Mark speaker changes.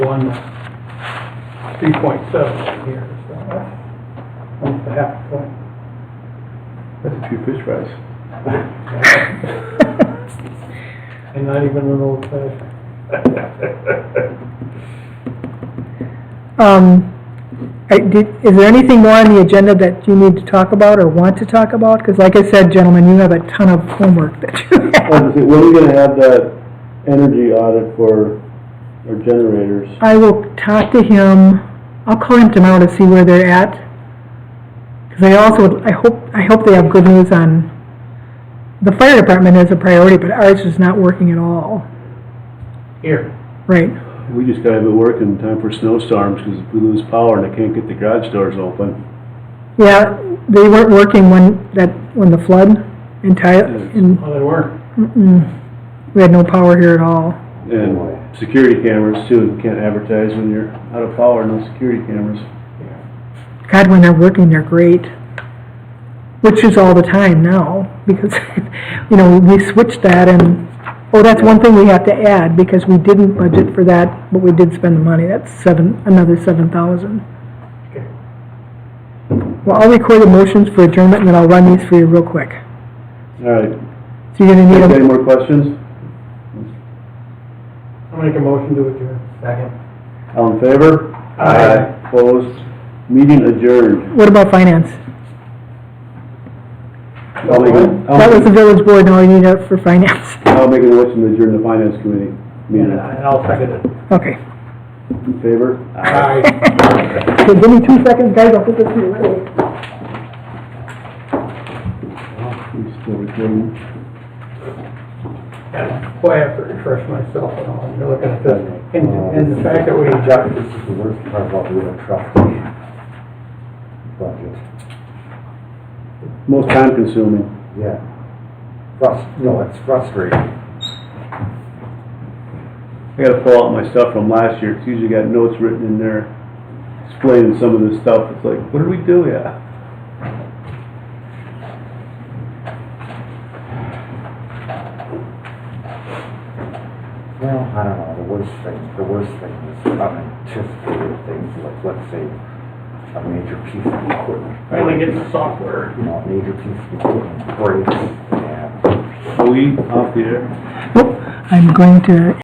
Speaker 1: one, uh, three point seven here, so that's almost a half point.
Speaker 2: That's a few fish fries.
Speaker 1: And not even an old fashioned.
Speaker 3: Um, I did, is there anything more on the agenda that you need to talk about or want to talk about? Because like I said, gentlemen, you have a ton of homework that you
Speaker 4: Well,
Speaker 3: have.
Speaker 4: let's see, When are we gonna have that energy audit for our generators?
Speaker 3: I will talk to him, I'll call him tomorrow to see where they're at. Because I also, I hope, I hope they have good news on, the fire department is a priority, but ours is not working at all.
Speaker 1: Here,
Speaker 3: Right,
Speaker 4: We just gotta have it working in time for snowstorms, because if we lose power and I can't get the garage doors open,
Speaker 3: yeah, they weren't working when, that, when the flood entirely, and
Speaker 1: well, they weren't.
Speaker 3: we had no power here at all.
Speaker 4: and security cameras too, you can't advertise when you're out of power, no security cameras.
Speaker 3: God, when they're working, they're great. Which is all the time now, because, you know, we switched that and, oh, that's one thing we have to add, because we didn't budget for that, but we did spend the money, that's seven, another seven thousand.
Speaker 1: Okay.
Speaker 3: Well, I'll record the motions for adjournment, and then I'll run these for you real quick.
Speaker 4: All right,
Speaker 3: So you're gonna need
Speaker 4: any
Speaker 3: them,
Speaker 4: more questions?
Speaker 1: I'll make a motion to adjourn. Second.
Speaker 4: All in favor?
Speaker 1: Aye.
Speaker 4: Opposed? Meeting adjourned.
Speaker 3: what about finance?
Speaker 4: I'll make, a-
Speaker 3: That was the
Speaker 4: I'll,
Speaker 3: village board, now you need it for finance,
Speaker 4: I'll make a motion to adjourn the finance committee. Meeting,
Speaker 1: And I- and I'll second it.
Speaker 3: okay.
Speaker 4: in favor?
Speaker 1: Aye.
Speaker 3: Okay, give me two seconds, guys, I'll put this in right away.
Speaker 4: We still recording?
Speaker 1: And boy, I have to refresh myself and all, you're looking at this, and, and the fact that we,
Speaker 5: Jack, this is the worst part about being a trustee. Budget,
Speaker 4: Most time consuming.
Speaker 5: yeah. Frust, no, it's frustrating.
Speaker 4: I gotta pull out my stuff from last year, it's usually got notes written in there explaining some of this stuff, it's like, what did we do, yeah?
Speaker 5: Well, I don't know, the worst thing, the worst thing is unanticipated things, like, let's say, a major piece of equipment.
Speaker 1: finally getting the software.
Speaker 5: You know, a major piece of equipment breaks, and
Speaker 4: Are we off the air?
Speaker 3: Nope, I'm going to